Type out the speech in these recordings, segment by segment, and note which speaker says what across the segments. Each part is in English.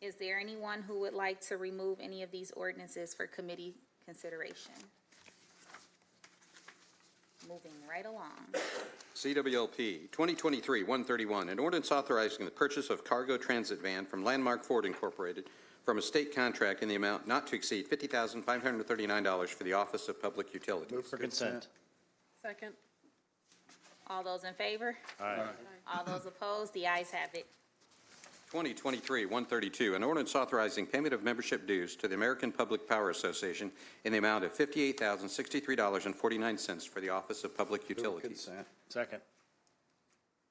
Speaker 1: Is there anyone who would like to remove any of these ordinances for committee consideration? Moving right along.
Speaker 2: CWLP 2023-131, an ordinance authorizing the purchase of cargo transit van from Landmark Ford Incorporated from a state contract in the amount not to exceed $50,539 for the Office of Public Utilities.
Speaker 3: For consent.
Speaker 4: Second.
Speaker 1: All those in favor?
Speaker 3: Aye.
Speaker 1: All those opposed? The ayes have it.
Speaker 2: 2023-132, an ordinance authorizing payment of membership dues to the American Public Power Association in the amount of $58,063.49 for the Office of Public Utilities.
Speaker 3: Second.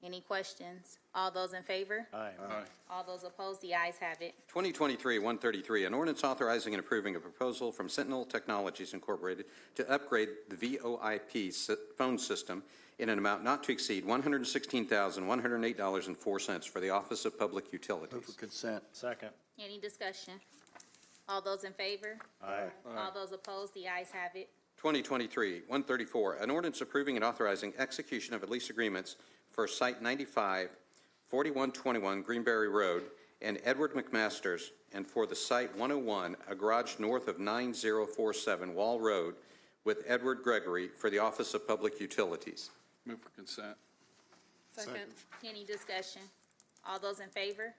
Speaker 1: Any questions? All those in favor?
Speaker 3: Aye.
Speaker 1: All those opposed? The ayes have it.
Speaker 2: 2023-133, an ordinance authorizing and approving a proposal from Sentinel Technologies Incorporated to upgrade the VoIP sy- phone system in an amount not to exceed $116,108.04 for the Office of Public Utilities.
Speaker 5: consent.
Speaker 3: Second.
Speaker 1: Any discussion? All those in favor?
Speaker 3: Aye.
Speaker 1: All those opposed? The ayes have it.
Speaker 2: 2023-134, an ordinance approving and authorizing execution of at lease agreements for Site 95, 4121 Greenberry Road, and Edward McMaster's, and for the Site 101, a garage north of 9047 Wall Road, with Edward Gregory for the Office of Public Utilities.
Speaker 6: Move for consent.
Speaker 4: Second.
Speaker 1: Any discussion? All those in favor?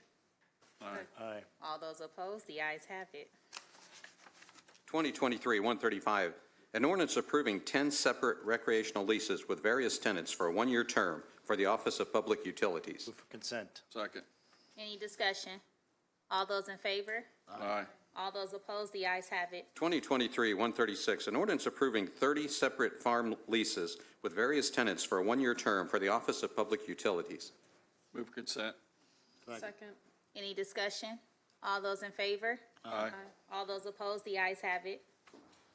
Speaker 6: Aye.
Speaker 3: Aye.
Speaker 1: All those opposed? The ayes have it.
Speaker 2: 2023-135, an ordinance approving 10 separate recreational leases with various tenants for a one-year term for the Office of Public Utilities.
Speaker 3: Move for consent.
Speaker 6: Second.
Speaker 1: Any discussion? All those in favor?
Speaker 6: Aye.
Speaker 1: All those opposed? The ayes have it.
Speaker 2: 2023-136, an ordinance approving 30 separate farm leases with various tenants for a one-year term for the Office of Public Utilities.
Speaker 6: Move for consent.
Speaker 4: Second.
Speaker 1: Any discussion? All those in favor?
Speaker 6: Aye.
Speaker 1: All those opposed? The ayes have it.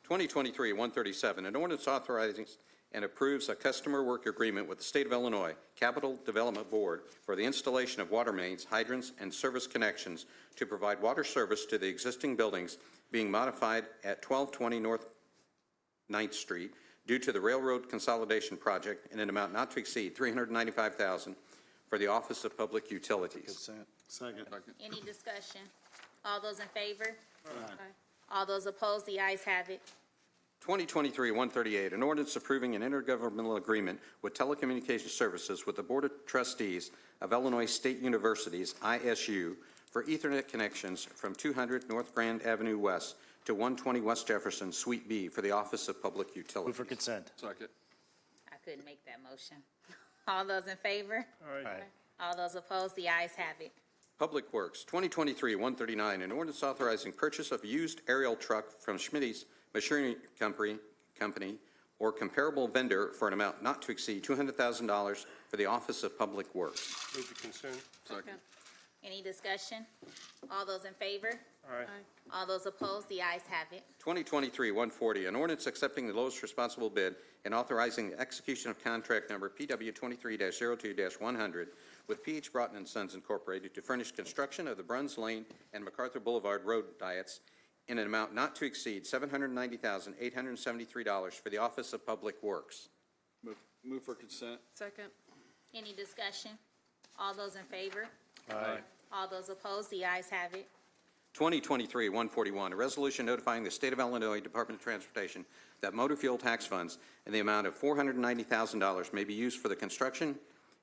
Speaker 2: 2023-137, an ordinance authorizing and approves a customer work agreement with the State of Illinois Capital Development Board for the installation of water mains, hydrants, and service connections to provide water service to the existing buildings being modified at 1220 North 9th Street due to the railroad consolidation project in an amount not to exceed 395000 for the Office of Public Utilities.
Speaker 5: Consent.
Speaker 6: Second.
Speaker 1: Any discussion? All those in favor?
Speaker 4: Aye.
Speaker 1: All those opposed? The ayes have it.
Speaker 2: 2023-138, an ordinance approving an intergovernmental agreement with telecommunications services with the Board of Trustees of Illinois State University's ISU for Ethernet connections from 200 North Grand Avenue West to 120 West Jefferson Suite B for the Office of Public
Speaker 3: Move for
Speaker 2: Utilities.
Speaker 3: consent.
Speaker 6: Second.
Speaker 1: I couldn't make that motion. All those in favor?
Speaker 3: Aye.
Speaker 1: All those opposed? The ayes have it.
Speaker 2: Public Works, 2023-139, an ordinance authorizing purchase of used aerial truck from Schmitty's Machinery Company Company or comparable vendor for an amount not to exceed $200,000 for the Office of Public Works.
Speaker 7: Move for consent.
Speaker 6: Second.
Speaker 1: Any discussion? All those in favor?
Speaker 4: Aye.
Speaker 1: All those opposed? The ayes have it.
Speaker 2: 2023-140, an ordinance accepting the lowest responsible bid and authorizing the execution of contract number PW 23-02-100 with PH Broughton and Sons Incorporated to furnish construction of the Bruns Lane and MacArthur Boulevard road diets in an amount not to exceed $790,873 for the Office of Public Works.
Speaker 6: Move, move for consent.
Speaker 4: Second.
Speaker 1: Any discussion? All those in favor?
Speaker 6: Aye.
Speaker 1: All those opposed? The ayes have it.
Speaker 2: 2023-141, a resolution notifying the State of Illinois Department of Transportation that motor fuel tax funds in the amount of $490,000 may be used for the construction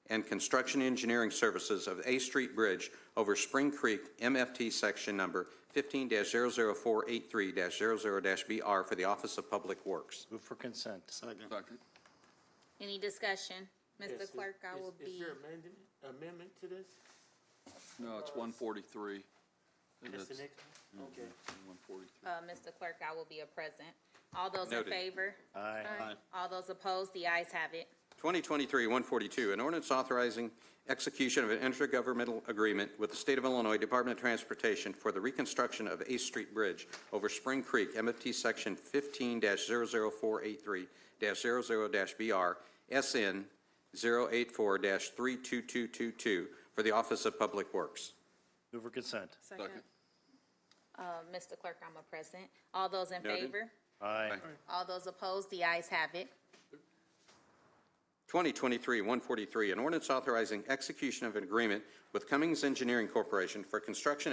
Speaker 2: and construction engineering services of A Street Bridge over Spring Creek MFT Section Number 15-00483-00-BR for the Office of Public Works.
Speaker 3: Move for consent.
Speaker 6: Second.
Speaker 1: Any discussion? Mr. Clerk, I will
Speaker 7: Is
Speaker 1: be,
Speaker 7: there amendment, amendment to this?
Speaker 6: No, it's one forty-three.
Speaker 7: That's the next one? Okay.
Speaker 6: One forty-three.
Speaker 1: uh, Mr. Clerk, I will be a present. All those in
Speaker 2: Noted.
Speaker 1: favor?
Speaker 3: Aye.
Speaker 1: All those opposed? The ayes have it.
Speaker 2: 2023-142, an ordinance authorizing execution of an intergovernmental agreement with the State of Illinois Department of Transportation for the reconstruction of Ace Street Bridge over Spring Creek, MFT Section 15-00483-00-BR, SN 084-32222, for the Office of Public Works.
Speaker 3: Move for consent.
Speaker 4: Second.
Speaker 1: Uh, Mr. Clerk, I'm a present. All those in
Speaker 2: Noted.
Speaker 1: favor?
Speaker 3: Aye.
Speaker 1: All those opposed? The ayes have it.
Speaker 2: 2023-143, an ordinance authorizing execution of an agreement with Cummings Engineering Corporation for construction